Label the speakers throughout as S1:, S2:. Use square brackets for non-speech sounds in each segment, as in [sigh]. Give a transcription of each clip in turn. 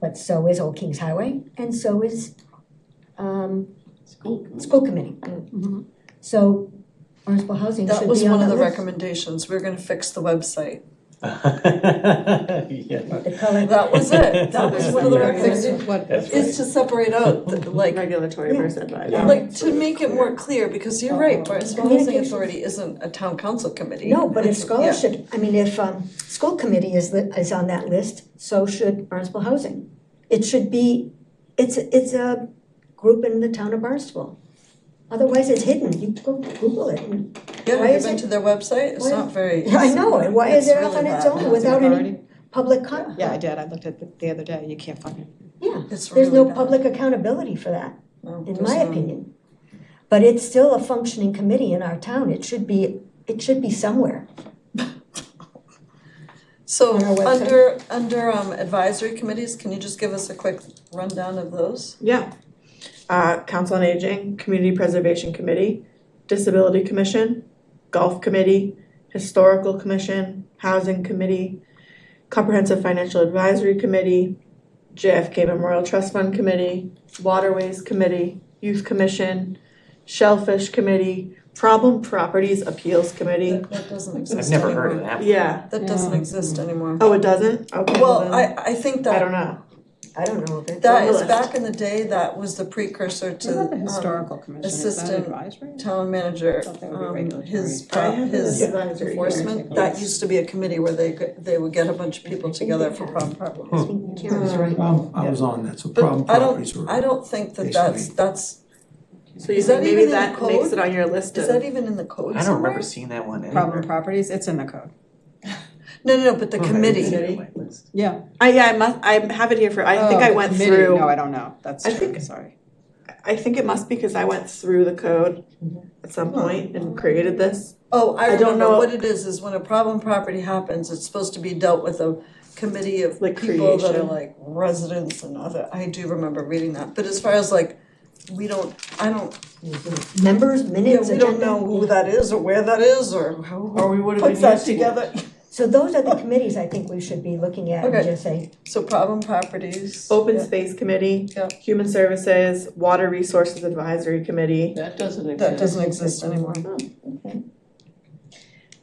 S1: but so is Old Kings Highway, and so is um
S2: School.
S1: school committee.
S2: Mhm.
S1: So Barnstable Housing should
S2: That
S1: be
S2: was
S1: on
S2: one of
S1: that
S2: the
S1: list.
S2: recommendations, we're gonna fix the website.
S3: Yeah.
S1: The color,
S2: That
S1: [laughs]
S2: was it, that was one of the
S3: Yeah.
S2: recommendations,
S4: What,
S3: That's
S2: is to separate
S1: [laughs]
S2: out, the- like,
S4: regulatory versus advisory.
S2: like, to make it more clear, because you're right, Barnstable Housing Authority isn't a town council committee.
S1: no, but if
S2: It's- yeah.
S1: scholarship, I mean, if um school committee is the, is on that list, so should Barnstable Housing. It should be, it's it's a group in the town of Barnstable. Otherwise, it's hidden, you go Google it and
S2: Yeah,
S1: why
S2: have you
S1: is
S2: been
S1: it-
S2: to their website? It's
S1: why-
S2: not
S1: [laughs]
S2: very.
S1: I know, and why is it up
S2: really
S1: on its
S2: bad.
S1: own without any public
S2: Yeah.
S1: con,
S4: Yeah, I did, I looked at it the other day, you can't find it.
S1: yeah,
S2: It's
S1: there's no
S2: really bad.
S1: public accountability for that,
S2: No,
S1: in
S2: there's
S1: my
S2: not.
S1: opinion. But it's still a functioning committee in our town, it should be, it should be somewhere.
S2: So
S1: on our website.
S2: under, under um, advisory committees, can you just give us a quick rundown of those?
S5: Yeah. Uh, Council on Aging, Community Preservation Committee, Disability Commission, Golf Committee, Historical Commission, Housing Committee, Comprehensive Financial Advisory Committee, JFK Memorial Trust Fund Committee, Waterways Committee, Youth Commission, Shellfish Committee, Problem Properties Appeals Committee.
S2: That that doesn't
S3: I've
S2: exist anymore.
S3: never heard of that.
S5: Yeah.
S2: That doesn't exist
S1: Mm-hmm.
S2: anymore.
S5: Oh, it doesn't? Okay.
S2: Well,
S5: then
S2: I, I think
S5: I don't
S2: that,
S5: know.
S1: I don't know if it's.
S2: that is
S5: list.
S2: back in the day, that was the precursor to
S4: Isn't that the
S2: um,
S4: historical commission, is that
S2: assistant-
S4: advisory?
S2: town manager,
S4: Thought that would be
S2: um,
S4: regulatory.
S2: his,
S5: I
S2: pro-
S5: have
S2: his
S5: an advisory
S2: enforcement. That used to be a committee where they, could- they would get a bunch of people together for problem properties.
S1: I think Karen's right.
S6: Um, I was on that, so problem
S2: But I
S6: properties
S2: don't,
S6: were.
S2: I don't think that that's,
S6: basically-
S2: that's,
S5: So you
S2: Is that
S5: think
S2: even
S5: maybe
S2: in the
S5: that makes
S2: code?
S5: it on your list
S2: is
S5: of
S2: that even in the code
S3: I don't
S2: somewhere?
S3: remember seeing that one anywhere.
S4: Problem properties, it's in the code,
S2: No, no, no, but the
S3: Okay, it's
S2: committee,
S3: on my list.
S4: yeah.
S5: I yeah, I must I have it here for I think
S4: Oh,
S5: I
S4: the
S5: went
S4: committee.
S5: through
S4: No, I don't know, that's
S5: I
S4: true,
S5: think-
S4: sorry.
S5: I think it must be because I went through the code at some point and created this.
S2: oh, I
S5: I don't
S2: remember
S5: know-
S2: what it is, is when a problem property happens, it's supposed to be dealt with a committee of
S5: Like
S2: people that are
S5: creation.
S2: like residents and other, I do remember reading that, but as far as like, we don't, I don't,
S1: Members,
S2: Hmm. yeah,
S1: minutes,
S2: we don't
S1: agenda.
S2: know who that is or where that is or who
S3: Or we would have
S2: puts
S3: been
S2: that
S3: used to it.
S2: together.
S1: So those are the committees I think we should be looking at and
S2: Okay.
S1: just say,
S2: So problem properties.
S5: Open
S2: yeah.
S5: Space Committee,
S2: Yeah.
S5: Human Services, Water Resources Advisory Committee,
S7: That doesn't exist.
S2: That doesn't exist anymore.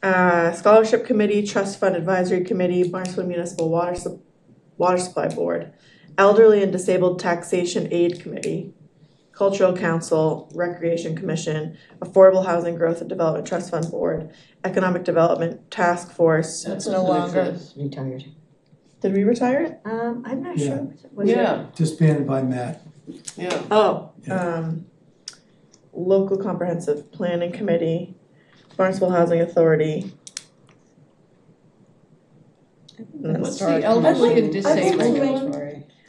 S5: uh, Scholarship Committee, Trust Fund Advisory Committee, Barnstable Municipal Water Sup- Water Supply Board, Elderly and Disabled Taxation Aid Committee, Cultural Council, Recreation Commission, Affordable Housing Growth and Development Trust Fund Board, Economic Development Task Force.
S7: That
S2: It's no
S7: doesn't
S2: longer-
S7: exist.
S1: retired.
S5: Did we retire it?
S1: Um, I'm not sure. Was it-
S7: Yeah,
S6: Disbanded by Matt.
S7: yeah.
S5: Oh,
S6: Yeah.
S5: um, local comprehensive planning committee, Barnstable Housing Authority. And
S7: What's
S5: that's-
S7: the elderly and
S2: I think-
S7: disabled?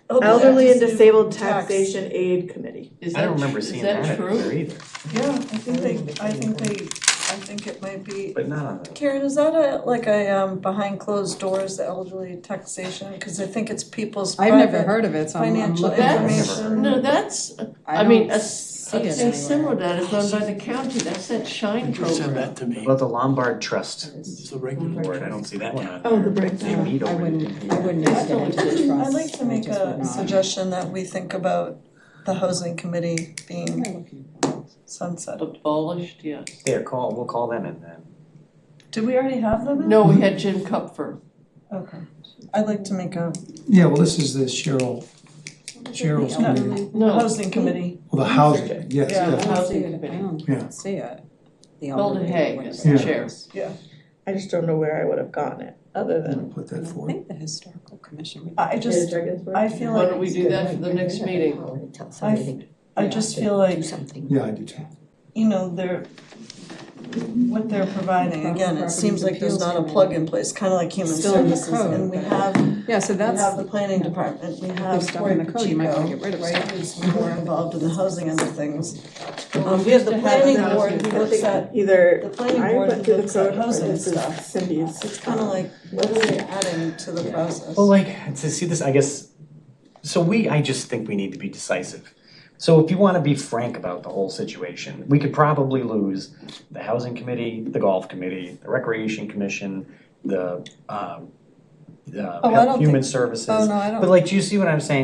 S2: Oh,
S5: Elderly and
S2: Tax-
S5: Disabled
S2: tax.
S5: Taxation Aid Committee.
S7: Is
S3: I
S7: that,
S3: don't remember
S7: is
S3: seeing
S7: that
S3: that
S7: true?
S3: anywhere either,
S2: Yeah, I think they, I think they, I think it might be.
S3: but not on the.
S2: Karen, is that a, like a, um, behind closed doors elderly taxation? Cause I think it's people's
S4: I've never
S2: private
S4: heard of it, so I'm, I'm
S2: financial
S4: looking. for it.
S3: That's-
S2: information.
S7: No, that's,
S4: I
S7: I mean,
S4: don't
S7: a, a
S4: see it
S7: thing similar to
S4: anywhere.
S7: that is done by the county, that's that shine
S8: You send
S7: program.
S8: that to me,
S3: About the Lombard Trust
S8: it's the regular.
S3: Board, I don't see that one on
S5: Oh, the
S3: there. They
S5: breakdown.
S3: meet
S4: I
S3: over there.
S4: wouldn't, I wouldn't
S7: That's
S4: extend it
S7: all
S4: to
S7: it is.
S4: the trust.
S2: I'd like to
S4: I
S2: make
S4: just would
S2: a
S4: not.
S2: suggestion that we think about the housing committee being
S4: What am I looking for?
S2: sunset.
S7: Abolished, yes.
S3: There, call, we'll call them and then.
S2: Did we already have them? in?
S7: No, we had Jim Cupfer.
S2: Okay. I'd like to make a
S6: Yeah, well, this is the Cheryl, Cheryl's
S2: Yeah.
S6: committee,
S7: No,
S2: housing committee.
S6: well, the housing, yes,
S2: Yeah.
S7: the
S6: yeah.
S7: housing
S4: I
S7: committee.
S4: don't
S6: Yeah.
S4: see it. The
S7: Golden
S4: elderly,
S7: Hay
S4: whatever
S7: is
S4: that
S6: the
S7: chair.
S4: is.
S5: I just don't know where I would have gotten it, other
S6: I'm
S5: than.
S6: gonna put that
S4: And I
S6: forward.
S4: think the historical commission. would-
S2: I just, I feel
S7: Why
S2: like,
S7: don't we do that for the next meeting?
S1: Tell somebody
S2: I just feel like
S1: to do something.
S6: Yeah, I do too.
S2: you know, they're, what they're providing, again, it seems like there's not a plug in place, kind of like human
S4: Still in the
S2: services,
S4: code,
S2: and we
S4: but-
S2: have, we
S4: Yeah, so that's.
S2: have the planning department, we have
S4: There's stuff
S2: Cory
S4: in the code, you might wanna
S2: Pacheco,
S4: get rid of
S2: right,
S4: stuff.
S2: who's more involved in the housing end of things.
S7: Well,
S2: Um, we have the
S7: just to have
S2: planning
S7: the
S2: board
S7: housing
S2: who looks at, the
S5: Either,
S2: planning
S5: I
S2: board
S5: went
S2: who
S5: through the
S2: looks at
S5: code, or
S2: housing
S5: this is
S2: stuff,
S5: Cindy's.
S2: it's kind of like, what are we adding to the process?
S3: Well, like, to see this, I guess, so we, I just think we need to be decisive. So if you wanna be frank about the whole situation, we could probably lose the housing committee, the golf committee, the recreation commission, the, um,
S2: Oh, I don't
S3: uh, human services.
S4: Oh, no, I don't
S3: But like, do you see what I'm saying?